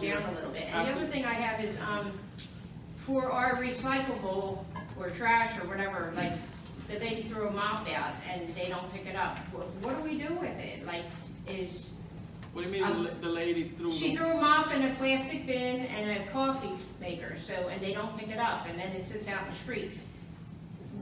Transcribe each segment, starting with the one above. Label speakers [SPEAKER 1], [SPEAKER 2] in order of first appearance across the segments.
[SPEAKER 1] down a little bit. And the other thing I have is, um, for our recyclable or trash or whatever, like, the lady threw a mop out and they don't pick it up. Wh- What do we do with it? Like, is,
[SPEAKER 2] What do you mean, the la- the lady threw
[SPEAKER 1] Um, she
[SPEAKER 2] the,
[SPEAKER 1] threw a mop in a plastic bin and a coffee maker, so, and they don't pick it up, and then it sits out in the street.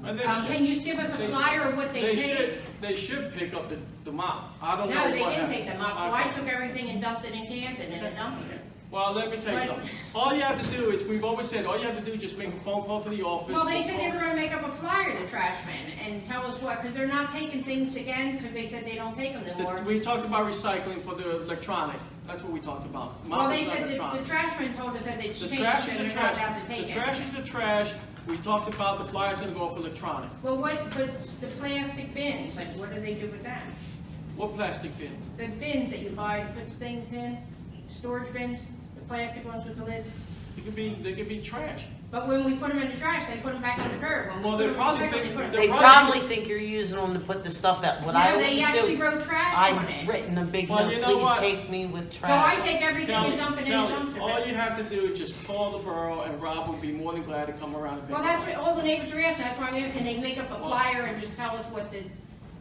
[SPEAKER 2] and they
[SPEAKER 1] Um, can
[SPEAKER 2] should,
[SPEAKER 1] you just give us a
[SPEAKER 2] They-
[SPEAKER 1] flyer of what they
[SPEAKER 2] they
[SPEAKER 1] take?
[SPEAKER 2] should, they should pick up the, the mop, I don't know
[SPEAKER 1] No,
[SPEAKER 2] what
[SPEAKER 1] they didn't
[SPEAKER 2] happened.
[SPEAKER 1] take the mop, so I took everything and dumped it in Camden in a dumpster.
[SPEAKER 2] Well, let me tell you
[SPEAKER 1] What?
[SPEAKER 2] something, all you have to do is, we've always said, all you have to do is just make a phone call to the office.
[SPEAKER 1] Well, they said they
[SPEAKER 2] phone-
[SPEAKER 1] were gonna make up a flyer, the trash men, and tell us what, because they're not taking things again, because they said they don't take them anymore.
[SPEAKER 2] The- We talked about recycling for the electronic, that's what we talked about.
[SPEAKER 1] Well,
[SPEAKER 2] Mop
[SPEAKER 1] they
[SPEAKER 2] is not
[SPEAKER 1] said that the
[SPEAKER 2] electronic.
[SPEAKER 1] trash men told us that they
[SPEAKER 2] The
[SPEAKER 1] changed,
[SPEAKER 2] trash
[SPEAKER 1] and
[SPEAKER 2] is the
[SPEAKER 1] they're not allowed
[SPEAKER 2] trash,
[SPEAKER 1] to
[SPEAKER 2] the
[SPEAKER 1] take
[SPEAKER 2] trash
[SPEAKER 1] it.
[SPEAKER 2] is the trash, we talked about the flyer's gonna go off electronic.
[SPEAKER 1] Well, what, but the plastic bins, like, what do they do with that?
[SPEAKER 2] What plastic bin?
[SPEAKER 1] The bins that you buy, to puts things in, storage bins, the plastic ones with the lids,
[SPEAKER 2] It could be, they could be trash.
[SPEAKER 1] but when we put them in the trash, they put them back on the curb. When we
[SPEAKER 2] Well,
[SPEAKER 1] put
[SPEAKER 2] they
[SPEAKER 1] 'em in the
[SPEAKER 2] probably
[SPEAKER 1] recycle,
[SPEAKER 2] think
[SPEAKER 1] put 'em-
[SPEAKER 2] they're
[SPEAKER 3] They
[SPEAKER 2] Right.
[SPEAKER 3] probably think you're using them to put the stuff out, what I
[SPEAKER 1] No, they
[SPEAKER 3] always
[SPEAKER 1] actually
[SPEAKER 3] do,
[SPEAKER 1] wrote trash on
[SPEAKER 3] I've
[SPEAKER 1] it.
[SPEAKER 3] written a big
[SPEAKER 2] Well,
[SPEAKER 3] note,
[SPEAKER 2] you know what?
[SPEAKER 3] please take me with
[SPEAKER 1] So I
[SPEAKER 3] trash.
[SPEAKER 1] take everything
[SPEAKER 2] Kelly,
[SPEAKER 1] and dump it in the
[SPEAKER 2] Kelly,
[SPEAKER 1] dumpster.
[SPEAKER 2] all you have to do is just call the borough and Rob will be more than glad to come around and pick
[SPEAKER 1] Well,
[SPEAKER 2] it
[SPEAKER 1] that's
[SPEAKER 2] up.
[SPEAKER 1] what all the neighbors are asking, that's why we have, can they make up a flyer and just tell us what the,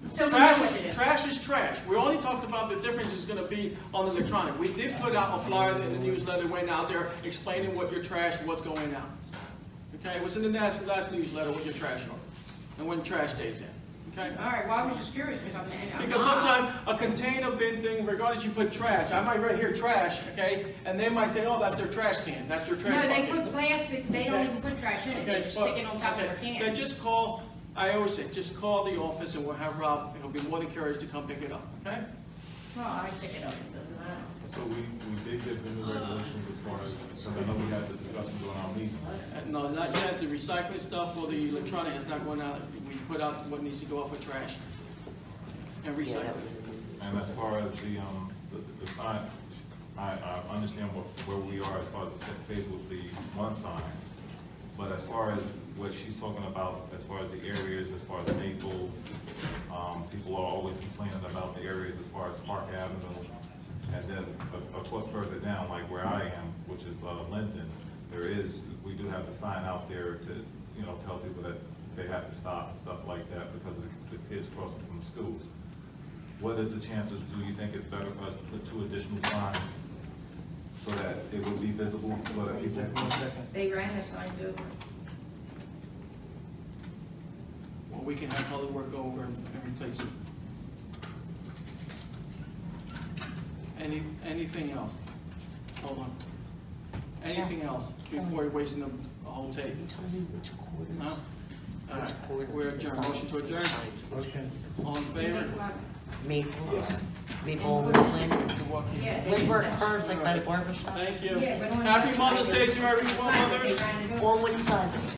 [SPEAKER 1] so we know what
[SPEAKER 2] Trash
[SPEAKER 1] to
[SPEAKER 2] is,
[SPEAKER 1] do?
[SPEAKER 2] trash is trash. We only talked about the difference is gonna be on electronic. We did put out a flyer in the newsletter went out there explaining what your trash, what's going out. Okay, it was in the last, last newsletter, what your trash are, and when trash days in, okay?
[SPEAKER 1] All right, well, I was just curious, because I'm, and I'm.
[SPEAKER 2] Because sometimes a container bin thing, regardless you put trash, I might right here trash, okay? And they might say, oh, that's their trash can, that's their trash
[SPEAKER 1] No,
[SPEAKER 2] bucket.
[SPEAKER 1] they put plastic, they don't
[SPEAKER 2] Okay.
[SPEAKER 1] even put trash in it, they
[SPEAKER 2] Okay,
[SPEAKER 1] just
[SPEAKER 2] but-
[SPEAKER 1] stick it on top of their
[SPEAKER 2] okay,
[SPEAKER 1] can.
[SPEAKER 2] Then just call, I always say, just call the office and we'll have Rob, he'll be more than curious to come pick it up, okay?
[SPEAKER 1] Well, I pick it up, it doesn't matter.
[SPEAKER 4] So we, we did get vendor regulations as far as, and I know we had the discussion during our meeting.
[SPEAKER 2] Uh, No, not yet, the recycling stuff or the electronic has not gone out, we put out what needs to go off for trash and
[SPEAKER 3] Yeah, that
[SPEAKER 2] recycling.
[SPEAKER 3] was-
[SPEAKER 4] And as far as the, um, the, the sign, I, I understand what, where we are as far as the set phase with the one sign. But as far as what she's talking about, as far as the areas, as far as Maple, um, people are always complaining about the areas as far as Park Avenue. And then, of, of course, further down, like where I am, which is, uh, Linden, there is, we do have the sign out there to, you know, tell people that they have to stop and stuff like that because of the- the kids crossing from the schools. What is the chances, do you think it's better for us to put two additional signs so that it would be visible, so that people,
[SPEAKER 1] They ran the signs over.
[SPEAKER 2] Or we can have public work go over and and replace it. Any, anything else? Hold on. Anything else before you're wasting the whole tape?
[SPEAKER 3] Tell me which quarter,
[SPEAKER 2] No? All right,
[SPEAKER 3] which quarter.
[SPEAKER 2] we're
[SPEAKER 3] the
[SPEAKER 2] adjourned,
[SPEAKER 3] sign-
[SPEAKER 2] motion to adjourn,
[SPEAKER 5] Okay.
[SPEAKER 2] all in favor?
[SPEAKER 3] Maple, Maple,
[SPEAKER 1] And-
[SPEAKER 3] Woodland,
[SPEAKER 2] Good walk in.
[SPEAKER 1] Yeah, they
[SPEAKER 3] Woodward
[SPEAKER 1] just-
[SPEAKER 3] curves like by the barber shop,
[SPEAKER 2] Thank you.
[SPEAKER 1] Yeah, but only-
[SPEAKER 2] Happy Mother's Day to everyone,
[SPEAKER 1] Signs, they
[SPEAKER 2] mothers.
[SPEAKER 1] ran it over.
[SPEAKER 3] or which side?